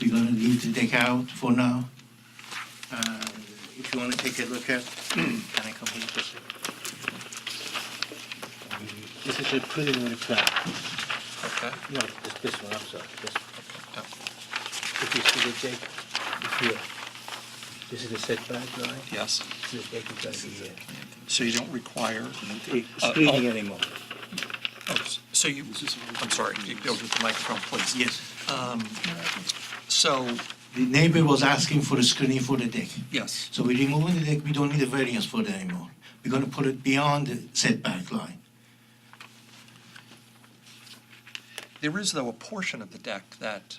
gonna need to take out for now. Uh, If you wanna take a look at, can I complete this? This is a preliminary plan, Okay. no, this, this one, I'm sorry, this. Yeah. If you see the deck, it's here. This is the setback line, Yes. the deck is gonna be here. So you don't require, It's Uh, oh. screening anymore. oh, s- so you, I'm sorry, you go to the microphone, please. Yes. So, The neighbor was asking for a screening for the deck. yes, So we're removing the deck, we don't need a variance for that anymore. We're gonna put it beyond the setback line. there is though a portion of the deck that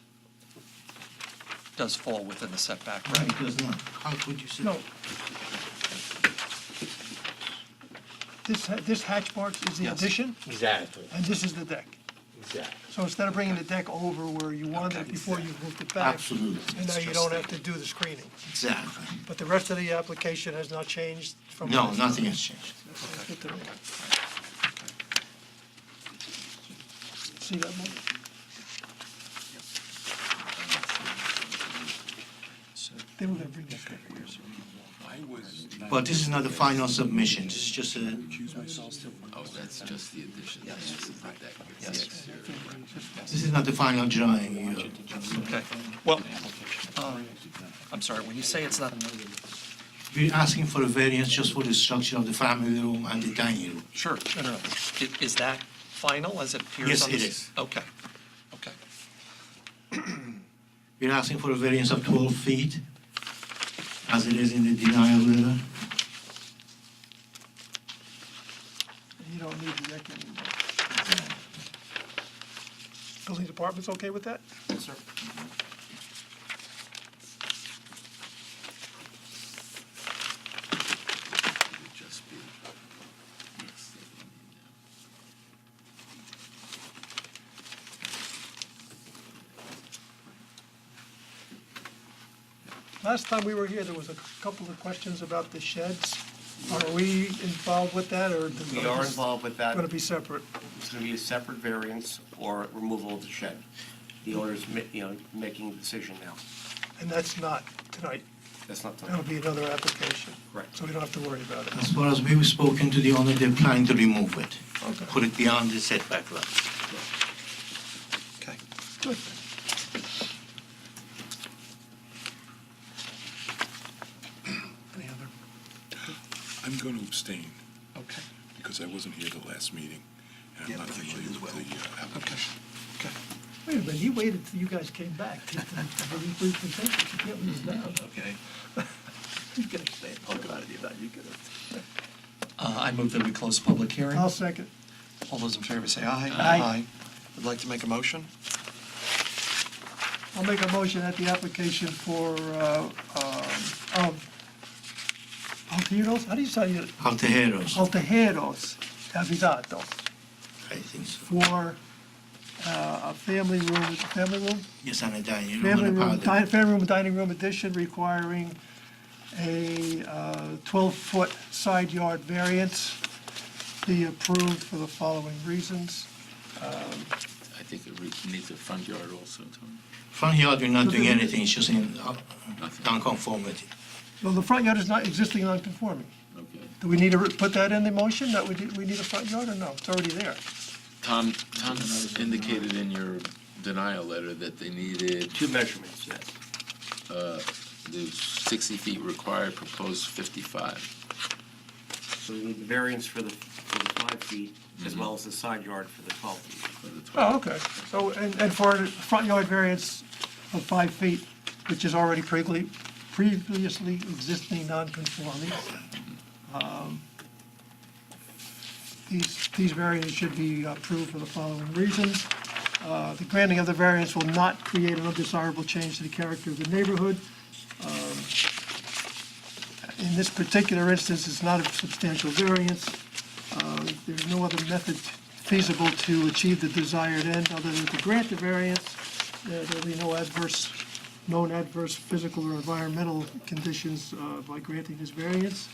does fall within the setback, Right, right? because not, how could you say? No. This, ha- this hatch mark is the Yes. addition, Exactly, and this is the deck. exactly. So instead of bringing the deck over where you wanted it Okay. before, you moved it back. Absolutely, And now It's you just don't the- have to do the screening. exactly. But the rest of the application has not changed from. No, last- nothing has changed. That's good to know. See that one? So They were gonna bring that back. But this is not the final submission, this is just a, Oh, that's just the addition. That's the deck. It's the Yes. exterior. this is not the final drawing. you- Okay, well, um, I'm sorry, when you say it's not, We're asking for a variance just for the structure of the family room and the dining room. sure, no, no, no. I- Is that final as it appears Yes, on this? it is. Okay, okay, We're asking for a variance of 12 feet, as it is in the denial letter. You don't need the deck anymore. Building department's okay with that? It would just be- yes, that would be now. Last time we were here, there was a couple of questions about the sheds. Are we involved with that, or? We are involved with that. Going to be separate? It's going to be a separate variance or removal of the shed. The owner's, ma- you know, making the decision now. And that's not tonight. That's not That'll the, be another application. Correct. So we don't have to worry about it. As far as we've spoken to the owner, they're planning to remove it, Okay. put it beyond the setback line. okay. Good. Any other? I'm going to abstain Okay, because I wasn't here the last meeting and I'm not familiar with the uh, application. okay. Wait a minute, he waited till you guys came back. to- to- to Please consent, you can't leave now. Okay. You can explain, talk about it, you know, you can. Uh, I move that we close the public hearing. I'll second. All those in favor say aye. Aye. Would like to make a motion? I'll make a motion that the application for, uh, um, of Altiros, how do you say it? Altejeros, Oh. Altejeros Navigados I think so. for uh, a family room, family room? Yes, and a dining room Family and a room, di- powder. family room dining room addition requiring a uh, 12-foot side yard variance be approved for the following reasons. I think it re- needs a front yard also, Tony. Front yard, we're not doing anything, it's just in uh, Nothing. non-conformity. Well, the front yard is not existing non-conforming. Okay. Do we need to re- put that in the motion, that we need- we need a front yard, or no? It's already there. Tom, Tom indicated in your denial letter that they needed, two measurements, yes. the 60 feet required, proposed 55. So we need the variance for the, for the five feet as well as the side yard for the 12 feet. for the 12. Oh, okay. So, and, and for a front yard variance of five feet, which is already previously, previously existing non-conforming, um, these, these variances should be approved for the following reasons. Uh, The granting of the variance will not create an undesirable change to the character of the neighborhood. Um, In this particular instance, it's not a substantial variance. Uh, There's no other method feasible to achieve the desired end other than to grant the variance. There- There'll be no adverse, known adverse physical or environmental conditions uh, by granting this variance.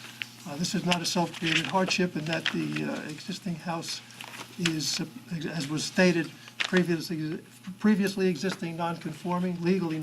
Uh, This is not a self-created hardship in that the uh, existing house is, uh, as was stated, previously, previously existing non-conforming, legally